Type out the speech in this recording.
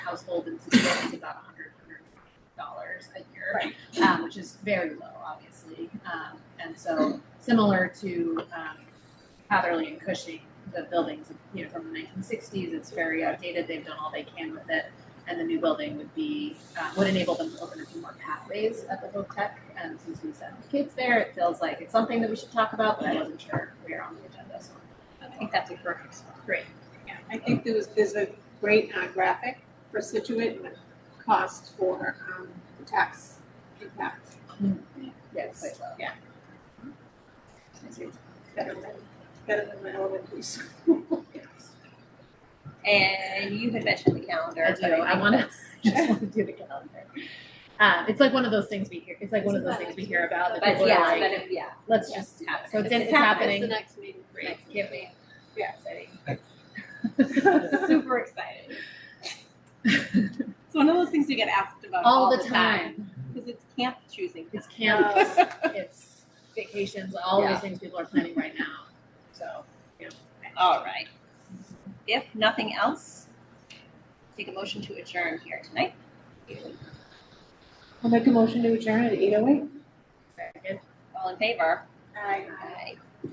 household in Cincinnati is about hundred, hundred dollars a year, Right. um, which is very low, obviously. Um, and so similar to um, Hatherley and Cushing, the buildings, you know, from the 1960s, it's very outdated. They've done all they can with it, and the new building would be uh, would enable them to open a few more pathways at the Hope Tech. And since we sent the kids there, it feels like it's something that we should talk about, but I wasn't sure we were on the agenda. So I think that's a perfect spot. great. Yeah, I think there was, there's a great uh, graphic for Situate and the cost for um, the tax impact. Yeah, it's quite low. Better than, better than my elementary school. And you had mentioned the calendar. I do. but I think want to that's- just want to do the calendar. Um, it's like one of those things we hear. It's like one of those things we hear about. That But people are yeah, like, but it, yeah. let's yeah. just so it's, It's it's happening. happening. It's the next meeting. Great. Can't wait. Yeah. exciting. Super excited. It's one of those things we get asked about all, the time. Oh. because it's camp choosing. It's Uh, camps, it's vacations, all Yeah. these things people are planning right now. So All right. If nothing else, take a motion to adjourn here tonight. I'll make a motion to adjourn at eight oh eight. very good. All in favor? Aye. Bye.